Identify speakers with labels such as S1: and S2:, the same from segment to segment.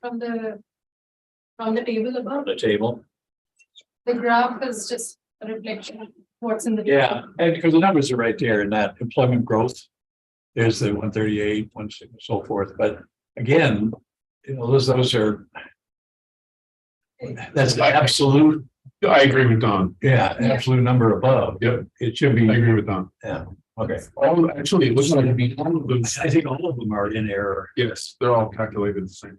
S1: from the, from the table above.
S2: the table.
S1: The graph is just a reflection of what's in the.
S2: Yeah, and because the numbers are right there in that employment growth. There's the one thirty-eight, one six, so forth, but again, you know, those, those are. That's the absolute,
S3: I agree with Don.
S2: yeah, absolute number above.
S3: Yep.
S2: It should be,
S3: I agree with Don.
S2: okay.
S3: All, actually, it looks like it'd be all of those.
S2: I think all of them are in error.
S3: Yes, they're all calculated the same.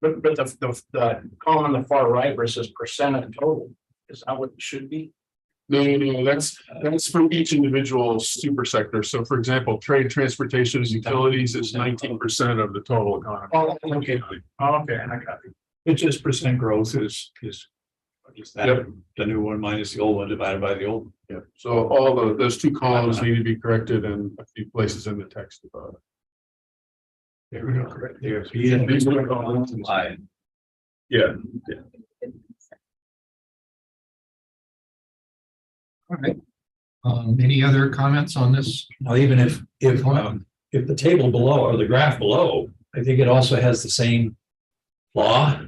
S4: But, but the, the, the column on the far right versus percent of total, is that what it should be?
S3: No, no, no, that's, that's from each individual super sector. So for example, trade, transportation, utilities is nineteen percent of the total economy.
S4: Oh, okay. Oh, Okay, and I got it.
S2: It's just percent growth is, is. Is that
S3: Yep.
S2: the new one minus the old one divided by the old?
S3: Yeah, so all the, those two columns need to be corrected in a few places in the text. about it.
S2: There we go, correct. There.
S3: Yeah, these are the ones.
S2: Line.
S3: Yeah,
S5: Um, any other comments on this?
S2: Now, even if, if, um, if the table below or the graph below, I think it also has the same law.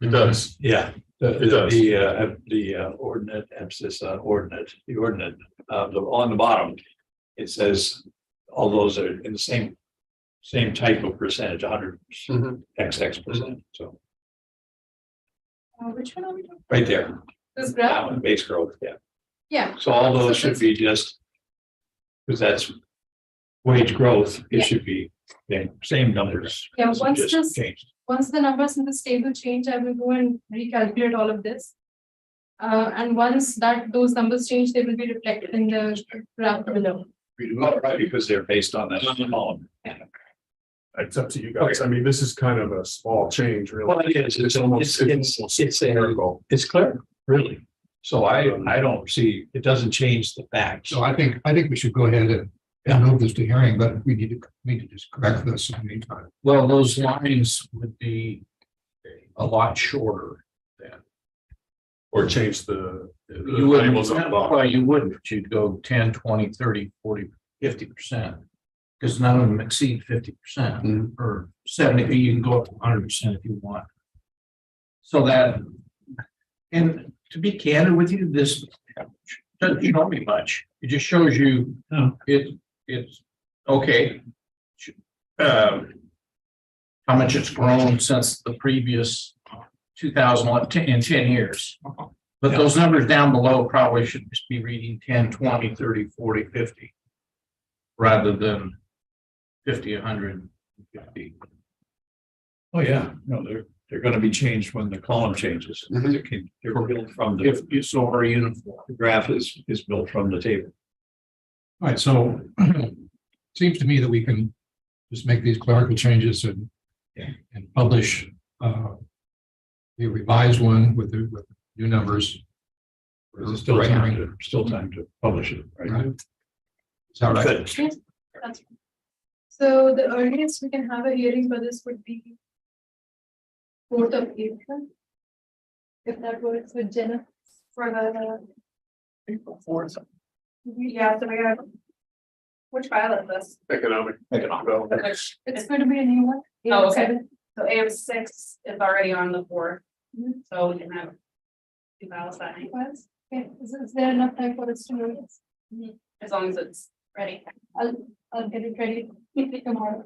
S3: it does.
S2: Yeah.
S3: It does.
S2: The, uh, the uh, ordinate, emphasis on ordinate, the ordinate, uh, the, on the bottom, it says all those are in the same, same type of percentage, hundred
S3: Mhm.
S2: XX percent, so,
S1: Uh, Which one are we talking?
S2: right there,
S1: This
S2: that
S1: graph,
S2: one, base growth, yeah.
S1: yeah,
S2: So all those should be just. Because that's wage growth,
S1: Yeah.
S2: it should be the same numbers.
S1: Yeah, once this-
S2: Just changed.
S1: once the numbers in this table change, I will go and recalculate all of this. Uh, and once that, those numbers change, they will be reflected in the graph below.
S4: Mm-hmm.
S2: Oh, Right, because they're based on that column.
S3: It's up to you guys. I mean, this is kind of a small change, really.
S2: Well, it is, it's almost, it's, it's, it's a-
S3: Miracle.
S2: it's clear, really. So I, I don't see, it doesn't change the facts.
S5: So I think, I think we should go ahead and and move this to hearing, but we need to, need to just correct this in the meantime.
S6: Well, those lines would be a lot shorter.
S3: Or change the. the
S6: You wouldn't,
S3: labels on the bottom.
S6: well, you wouldn't, you'd go 10, 20, 30, 40, 50 percent. Because none of them exceed fifty
S3: Hmm.
S6: percent or seventy, you can go up to hundred percent if you want. So that, and to be candid with you, this doesn't show me much. It just shows you,
S2: No.
S6: it, it's, okay. Um, how much it's grown since the previous two thousand in ten years. But those numbers down below probably should just be reading 10, 20, 30, 40, 50, Rather than fifty, hundred and fifty.
S2: Oh, yeah, no, they're, they're gonna be changed when the column changes.
S3: Mhm.
S2: They can- They're built from the
S6: If you saw our uniform.
S2: the graph is, is built from the table.
S5: All right, so seems to me that we can just make these clerical changes and and publish uh the revised one with the with new numbers.
S2: There's still time to, still time to publish it, right?
S5: Right. Is that right?
S2: Good.
S1: That's- So the earliest we can have a hearing for this would be fourth of April. If that works with Jenna for the.
S4: April fourth.
S1: Yeah, so we have. Which file is this?
S3: Economic. Economic.
S1: It's going to be a new one.
S7: Oh, okay. So AM six is already on the board, so we can have. Two ballots that night,
S1: Okay, is, is there enough time for us to notice?
S7: as long as it's ready.
S1: I'll, I'll get it ready tomorrow.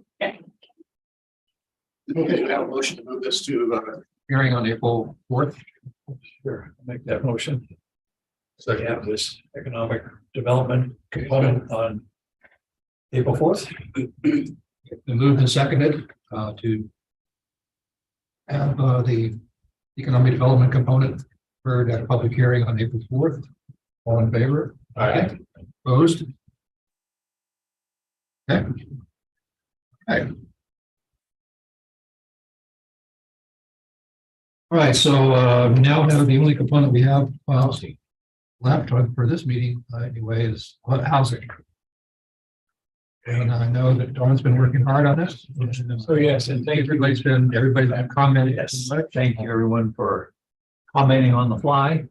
S3: Okay, I have a motion to move this to, uh,
S5: Hearing on April fourth.
S2: Sure, I'll make that motion. So you
S3: second.
S2: have this economic development component on April fourth.
S5: Been moved and seconded uh to have uh the economic development component heard at a public hearing on April fourth. All in favor? Aye. Opposed? Okay. Okay. All right, so uh we now have the only component we have uh, left for this meeting uh, anyway is housing. And I know that Dawn's been working hard on this.
S2: So yes, and thank you.
S5: Everybody's been, everybody that commented.
S2: Yes, thank you everyone for commenting on the fly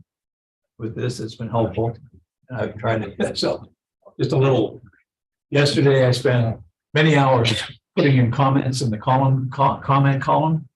S2: with this. It's been helpful. And I've tried to, so just a little. Yesterday I spent many hours putting in comments in the column, co- comment column.